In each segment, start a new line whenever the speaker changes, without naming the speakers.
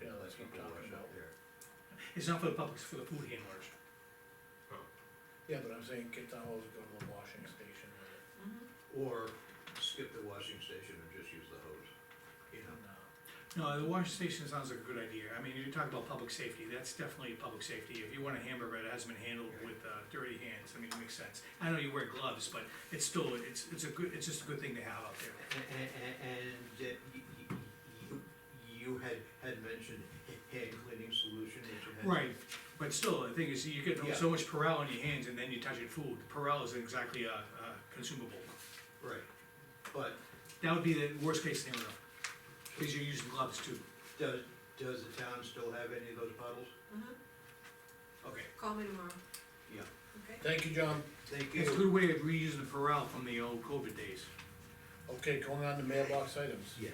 people wash out there.
It's not for the public, it's for the food handlers.
Yeah, but I'm saying get towels, go to the washing station with it.
Or skip the washing station and just use the hose, you know?
No. uh,
No, the washing station sounds like a good idea. I mean, you're talking about public safety, that's definitely public safety. If you want a hamburger that hasn't been handled with uh, dirty hands, I mean, it makes sense. I know you wear gloves, but it's still, it's, it's a good, it's just a good thing to have out there.
And, and that y- y- you, you had, had mentioned hand cleaning solution, which you had.
Right, but still, the thing is, you get
Yeah.
so much Perel on your hands and then you touch it food. Perel isn't exactly uh, uh, consumable.
Right, but
That would be the worst case scenario, because you're using gloves too.
does, does the town still have any of those bottles?
Mhm.
Okay,
Call me tomorrow,
yeah,
okay?
Thank you, John.
thank
It's a
you.
good way of reusing the Perel from the old COVID days.
Okay, going on to mailbox items.
Yes.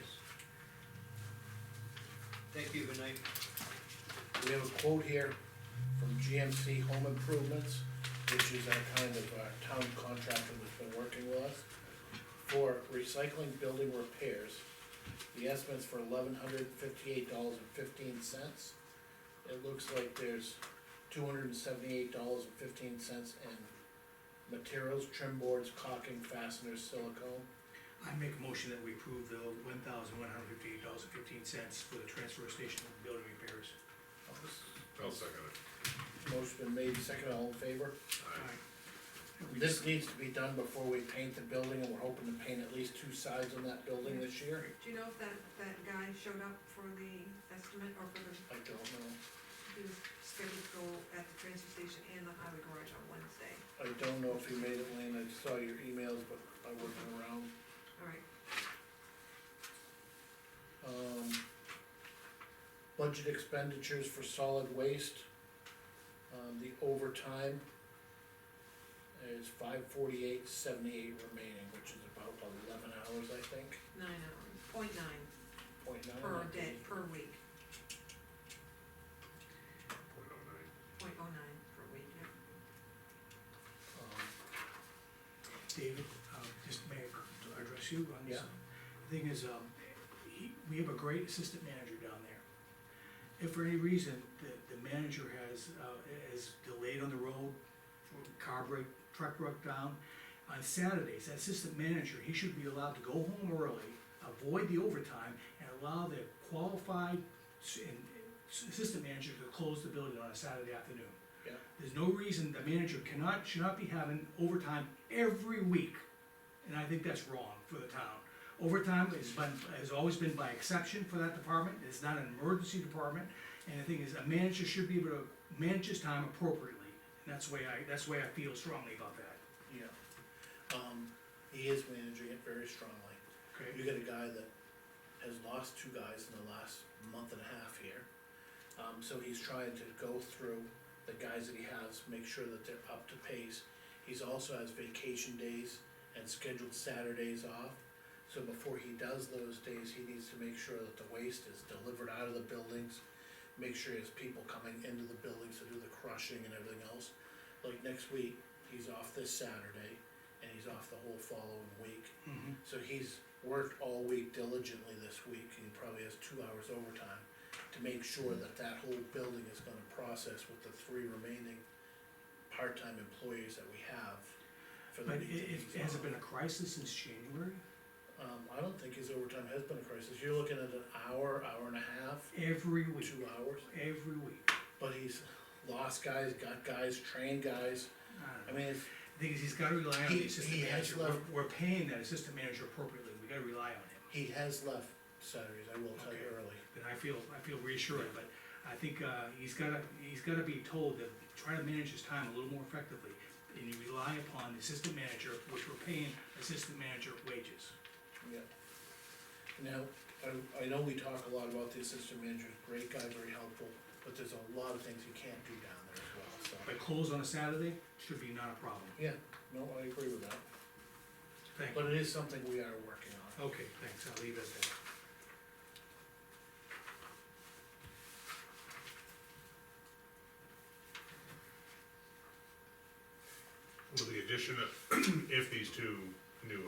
Thank you, good night.
We have a quote here from GMC Home Improvements, which is our kind of uh town contractor that's been working with us. For recycling building repairs, the estimate's for eleven hundred fifty-eight dollars and fifteen cents. It looks like there's two hundred and seventy-eight dollars and fifteen cents in materials, trim boards, caulking, fasteners, silicone.
I make a motion that we approve the one thousand one hundred fifty-eight dollars and fifteen cents for the transfer station building repairs.
I'll second it.
Motion been made, second, all in favor?
Aye.
We
This needs to be done before we paint the building, and we're hoping to paint at least two sides on that building this year.
Do you know if that, that guy showed up for the estimate or for the,
I don't know,
he was scheduled to go at the transfer station and the highway garage on Wednesday?
I don't know if you made it, Lane, I saw your emails, but I wasn't around.
All right,
Um, budget expenditures for solid waste, um, the overtime is five forty-eight seventy-eight remaining, which is about eleven hours, I think,
nine hours, point nine
point
Oh,
nine.
per day, per week,
Point oh nine.
point oh nine per week, yeah.
Um,
David, uh, just may I address you on this?
Yeah.
The Thing is, um, he, we have a great assistant manager down there. If for any reason, the, the manager has, uh, is delayed on the road, car break, truck broke down, on Saturdays, that assistant manager, he should be allowed to go home early, avoid the overtime, and allow the qualified s- and- and assistant manager to close the building on a Saturday afternoon.
Yeah.
There's no reason the manager cannot, should not be having overtime every week, and I think that's wrong for the town. Overtime has been, has always been by exception for that department, it's not an emergency department, and the thing is, a manager should be able to manage his time appropriately, and that's the way I, that's the way I feel strongly about that,
Yeah, um, he is managing it very strongly.
okay?
You got a guy that has lost two guys in the last month and a half here. Um, so he's trying to go through the guys that he has, make sure that they're up to pace. He's also has vacation days and scheduled Saturdays off. So before he does those days, he needs to make sure that the waste is delivered out of the buildings. Make sure he has people coming into the buildings to do the crushing and everything else. Like next week, he's off this Saturday and he's off the whole following week.
Mhm.
So he's worked all week diligently this week, and he probably has two hours overtime to make sure
Mm-hmm.
that that whole building is gonna process with the three remaining part-time employees that we have. for the
But
week
it,
that he's
it, has it
off.
been a crisis since January?
Um, I don't think his overtime has been a crisis, you're looking at an hour, hour and a half,
Every week,
two hours,
every week.
but he's lost guys, got guys, trained guys, I
I mean,
mean, it's,
the thing is, he's gotta rely on
He-
the assistant
he has
manager, we're,
left-
we're paying that assistant manager appropriately, we gotta rely on him.
he has left Saturdays, I will tell you
Okay.
early.
And I feel, I feel reassured, but I think, uh, he's gotta, he's gotta be told that, try to manage his time a little more effectively. And you rely upon the assistant manager, which we're paying assistant manager wages.
Yeah. Now, I, I know we talk a lot about the assistant manager, great guy, very helpful, but there's a lot of things you can't do down there as well, so.
But close on a Saturday should be not a problem,
Yeah, no, I agree with that,
thank you.
but it is something we are working on.
Okay, thanks, I'll leave it at that.
With the addition of, if these two new